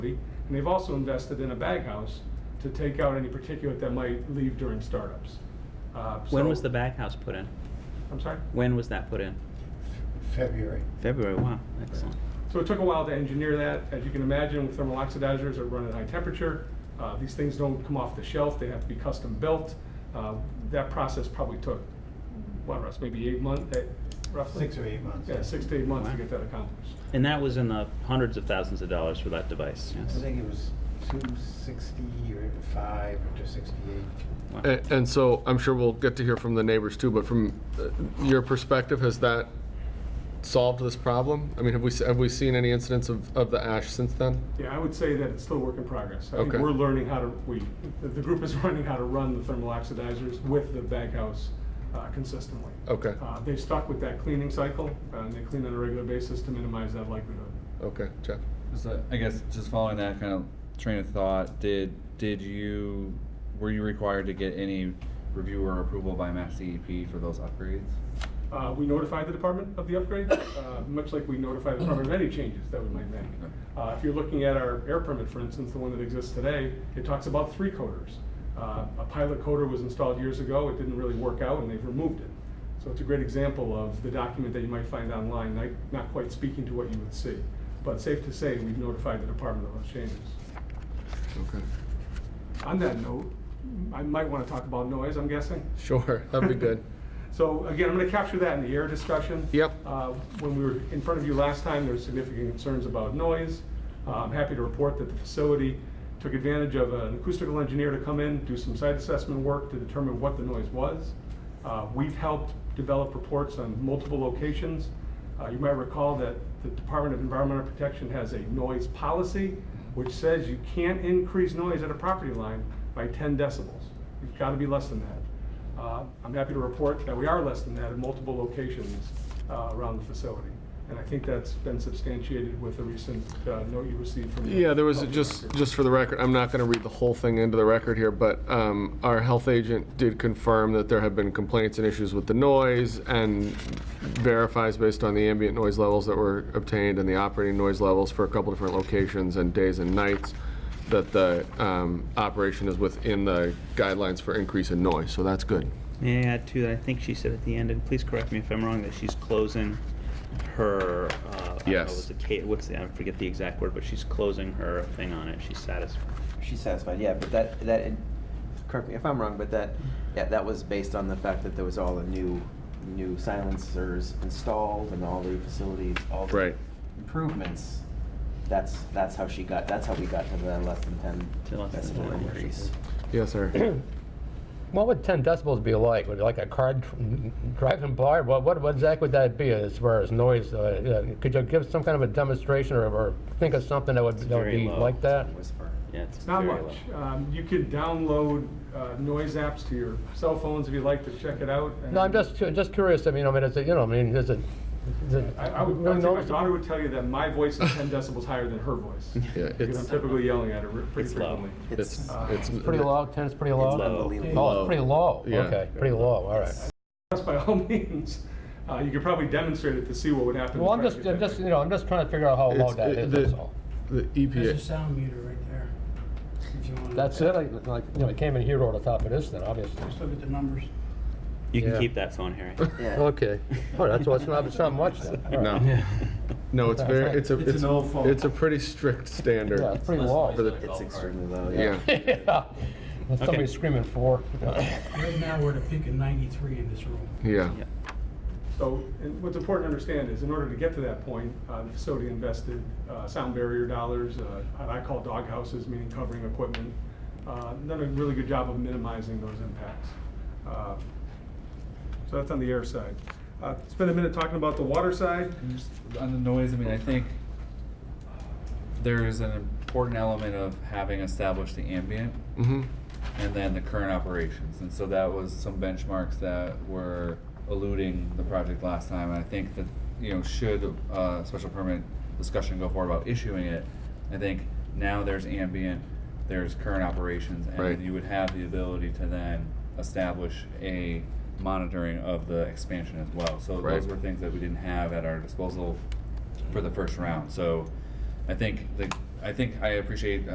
And they've also invested in a bag house to take out any particulate that might leave during startups. Uh, When so- was the bag house put in? I'm sorry? When was that put in? February. February, wow, excellent. So it took a while to engineer that. As you can imagine, with thermal oxidizers that run at high temperature, uh, these things don't come off the shelf, they have to be custom built. Uh, That process probably took, what, Russ, maybe eight months, eh, roughly? Six or eight months. Yeah, six to eight months to Wow. get that accomplished. And that was in the hundreds of thousands of dollars for that device, I yes. think it was two sixty or five or two sixty-eight. Wow. A- And so I'm sure we'll get to hear from the neighbors too, but from uh, your perspective, has that solved this problem? I mean, have we, se- have we seen any incidents of, of the ash since then? Yeah, I would say that it's still a work in progress. I think Okay. we're learning how to, we, the- the group is learning how to run the thermal oxidizers with the bag house uh, consistently. Okay, Uh, They've stuck with that cleaning cycle, uh, and they clean on a regular basis to minimize that likelihood. okay, Jeff. So I guess just following that kind of train of thought, did did you were you required to get any review or approval by Mass DEP for those upgrades? Uh, We notify the department of the upgrade, uh, much like we notify the department of any changes that we might make. Uh, If you're looking at our air permit, for instance, the one that exists today, it talks about three coders. Uh, A pilot coder was installed years ago, it didn't really work out, and they've removed it. So it's a great example of the document that you might find online, not- not quite speaking to what you would see. But safe to say, we've notified the department of those changes. Okay. On that note, I might want to talk about noise, I'm guessing. Sure, that'd be good. So again, I'm going to capture that in the air discussion. Yep. Uh, When we were in front of you last time, there were significant concerns about noise. Uh, I'm happy to report that the facility took advantage of an acoustical engineer to come in, do some site assessment work to determine what the noise was. Uh, We've helped develop reports on multiple locations. Uh, You might recall that the Department of Environmental Protection has a noise policy, which says you can't increase noise at a property line by 10 decibels. You've got to be less than that. Uh, I'm happy to report that we are less than that in multiple locations uh, around the facility. And I think that's been substantiated with the recent uh, note you received from. the Yeah, there was, health just, director. just for the record, I'm not gonna read the whole thing into the record here, but, um, our health agent did confirm that there have been complaints and issues with the noise and verifies based on the ambient noise levels that were obtained and the operating noise levels for a couple different locations and days and nights, that the, um, operation is within the guidelines for increase in noise, so that's good. May I add to that? I think she said at the end, and please correct me if I'm wrong, that she's closing her, uh, I don't know, Yes. was it Kate, what's the, I forget the exact word, but she's closing her thing on it. She's satisfied. She's satisfied, yeah, but that, that, correct me if I'm wrong, but that, yeah, that was based on the fact that there was all the new, new silencers installed and all the facilities, all the Right. improvements. That's, that's how she got, that's how we got to the less than ten To less than decibel 10, increase. Yes, sir. What would 10 decibels be like? Would it like a car dr- driving by? What, what, what exactly would that be as far as noise? Uh, yeah, could you give some kind of a demonstration or, or think of something that would, that would very be low. like that? Whisper. Yeah, it's Not very much. low. uh, Um, You could download uh, noise apps to your cell phones if you'd like to check it out. and- No, I'm just cu- just curious. I mean, I mean, it's a, you know, I mean, is it? Is it I I would, I really would say my noticeable? daughter would tell you that my voice is 10 decibels higher than her voice. Yeah, Because I'm it's, typically yelling at her pretty It's low. frequently. it's, It's it's. It's pretty low. 10 is pretty low. low. unbelievable. Oh, it's pretty low. Yeah. Okay, pretty low. All right. Yes, By all means, Uh, you could probably demonstrate it to see what would happen. Well, I'm if I just, did I'm that. just, you know, I'm just trying to figure out how low It's- that it- is. the- That's all. The E There's a EPA, sound meter right there. If you want That's it. I, like, you know, it came in here over the top of this, then obviously. Just look at the numbers. You can Yeah. keep that phone, Harry. Yeah, Okay. Well, that's what's not, it's not much then. All right. no. No, it's very, it's a, It's it's, an old phone. it's a pretty strict standard. Yeah, it's pretty low. For the- it's extremely low, Yeah, yeah. Yeah. Somebody screaming for. Right now, we're at a peak of 93 in this room. yeah. Yeah. So, and what's important to understand is, in order to get to that point, uh, the facility invested uh, sound barrier dollars, uh, what I call dog houses, meaning covering equipment. Uh, Done a really good job of minimizing those impacts. Uh, So that's on the air side. Uh, Spend a minute talking about the water side. And just on the noise, I mean, I think there is an important element of having established the ambient hmm and then the current operations. And so that was some benchmarks that were eluding the project last time. And I think that, you know, should a special permit discussion go forward about issuing it, I think now there's ambient, there's current operations, and Right. then you would have the ability to then establish a monitoring of the expansion as well. So Right. those were things that we didn't have at our disposal for the first round. So I think the I think I appreciate